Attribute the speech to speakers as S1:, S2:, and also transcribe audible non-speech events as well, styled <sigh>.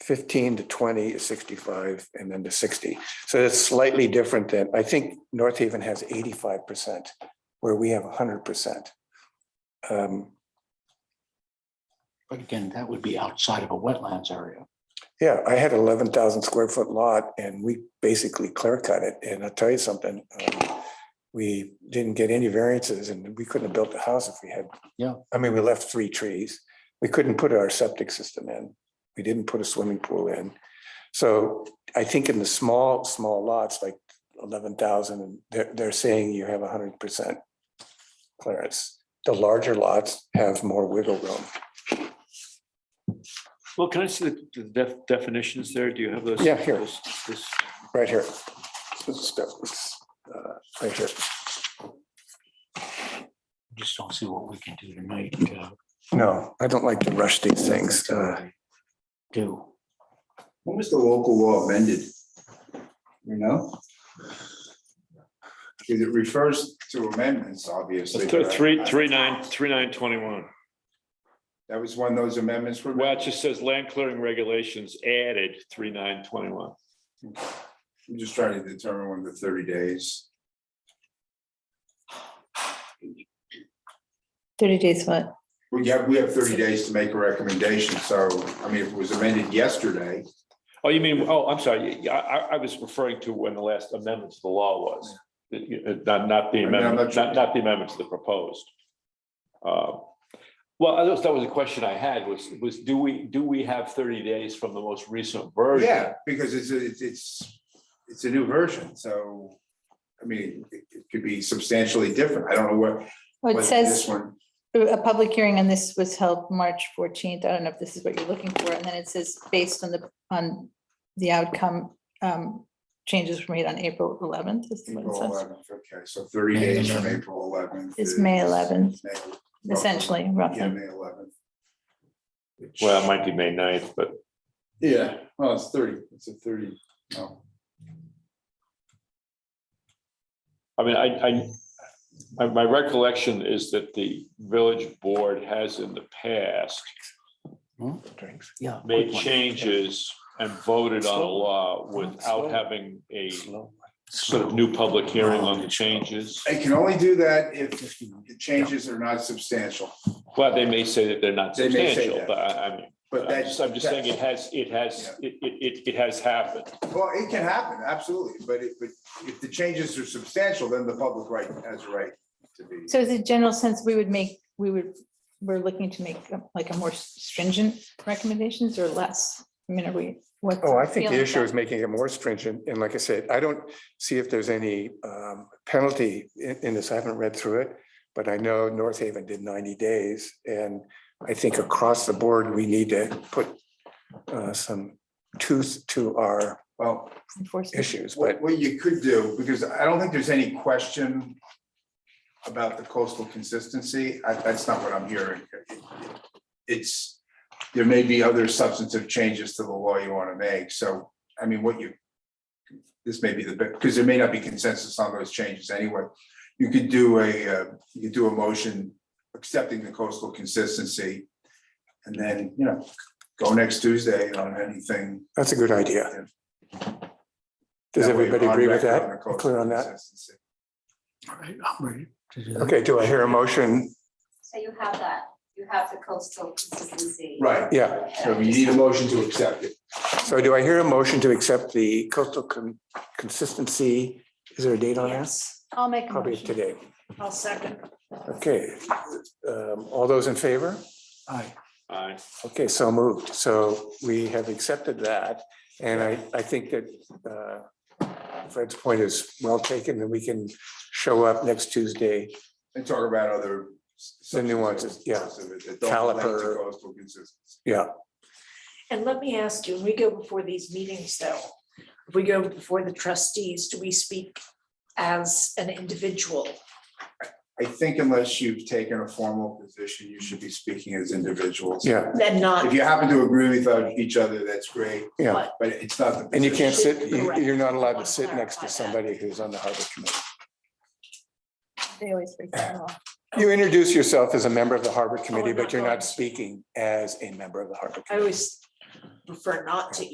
S1: fifteen to twenty is sixty-five and then to sixty. So it's slightly different than, I think North Haven has eighty-five percent where we have hundred percent. Um,
S2: But again, that would be outside of a wetlands area.
S1: Yeah, I had eleven thousand square foot lot and we basically clear cut it. And I'll tell you something. um, We didn't get any variances and we couldn't have built the house if we had.
S2: Yeah.
S1: I mean, we left three trees. We couldn't put our septic system in. We didn't put a swimming pool in. So I think in the small, small lots, like eleven thousand, they're, they're saying you have hundred percent clearance. The larger lots have more wiggle room.
S3: Well, can I see the- the def- definitions there? Do you have those?
S1: Yeah, here.
S3: those- this-
S1: Right here. This stuff, uh, Right here.
S2: Just don't see what we can do tonight. uh,
S1: No, I don't like to rush these things. Uh,
S2: Do.
S4: When was the local law amended? You know? Because it refers to amendments, obviously.
S3: Three,
S4: but I-
S3: three, three nine, three nine twenty-one.
S4: That was when those amendments were.
S3: Well, it just says land clearing regulations added three nine twenty-one.
S4: I'm just trying to determine when the thirty days.
S5: Thirty days what?
S4: We have, we have thirty days to make a recommendation, so, I mean, if it was amended yesterday,
S3: Oh, you mean, oh, I'm sorry. Yeah, I, I- I was referring to when the last amendment to the law was. Uh, uh, Not, not the
S4: I'm
S3: amendment,
S4: not sure.
S3: not, not the amendments that proposed. Uh, Well, I guess that was a question I had was, was do we, do we have thirty days from the most recent version?
S4: yeah, because it's, a- it's, it's, it's a new version, so. I mean, it it could be substantially different. I don't know what.
S5: Well,
S4: whether
S5: it
S4: This
S5: says
S4: one,
S5: a public hearing on this was held March fourteenth. I don't know if this is what you're looking for. And then it says based on the, on the outcome, um, changes were made on April eleventh.
S4: April eleventh, okay, so thirty
S2: May
S4: days from
S2: 11th.
S4: April eleventh.
S5: It's May eleventh,
S4: May-
S5: essentially,
S4: Yeah,
S5: roughly.
S4: May eleventh.
S3: Well, it might be May 9th, but
S4: Yeah, well, it's thirty, it's a thirty, no.
S3: I mean, I, I, my, my recollection is that the village board has in the past
S1: drinks.
S2: Yeah.
S3: made
S2: quick one.
S3: changes and voted on a law without having a sort of new public hearing on the changes.
S4: I can only do that if the changes are not substantial,
S3: Well, they may say that they're not
S4: They may say
S3: substantial,
S4: that.
S3: but I, I mean,
S4: but
S3: I'm
S4: that's.
S3: just, I'm just saying it has, it has, it, it, it- it has happened.
S4: Well, it can happen, absolutely, but it, but if the changes are substantial, then the public right has a right to be.
S5: So is a general sense, we would make, we would, we're looking to make uh, like a more stringent recommendations or less? I mean, are we, what?
S1: Oh, I think the issue is making it more stringent. And like I said, I don't see if there's any um, penalty in, in this. I haven't read through it. But I know North Haven did ninety days and I think across the board, we need to put uh, some tooth to our
S4: Well,
S5: Enforcement.
S1: issues, but
S4: what, what you could do, because I don't think there's any question about the coastal consistency, I, that's not what I'm hearing. It's, there may be other substantive changes to the law you want to make, so, I mean, what you, this may be the, because there may not be consensus on those changes anyway. You could do a, uh, you could do a motion accepting the coastal consistency, and then, you know, go next Tuesday on anything.
S1: that's a good idea. Does everybody agree with that? Clear on that?
S2: All right, I'm ready to do that.
S1: Okay, do I hear a motion?
S6: So you have that, you have the coastal consistency.
S4: Right,
S1: Yeah.
S4: so you need a motion to accept it.
S1: So do I hear a motion to accept the coastal con- consistency? Is there a date on that?
S5: I'll make a
S1: Probably
S5: motion.
S1: today.
S6: I'll second.
S1: Okay. Um, All those in favor?
S2: All right,
S3: I,
S1: Okay, so moved. So we have accepted that. And I, I think that uh, Fred's point is well taken and we can show up next Tuesday.
S4: And talk about other. s-
S1: The nuances, yeah.
S4: substantive- that don't relate to
S1: Caliper.
S4: coastal consistency.
S1: Yeah,
S7: And let me ask you, when we go before these meetings though, if we go before the trustees, do we speak as an individual?
S4: I think unless you've taken a formal position, you should be speaking as individuals.
S1: yeah,
S7: Then
S4: If
S7: not,
S4: you happen to agree with uh, each other, that's great,
S1: yeah.
S7: but
S4: but it's not the.
S1: And you can't
S4: position.
S1: sit, you- you're not allowed to sit next to somebody who's on the harbor committee.
S5: They always break
S4: <clears throat>
S5: that law.
S1: You introduce yourself as a member of the harbor committee,
S7: I'm
S1: but
S7: not
S1: you're
S7: going
S1: not
S7: to.
S1: speaking as a member of the harbor.
S7: I
S1: committee.
S7: always prefer not to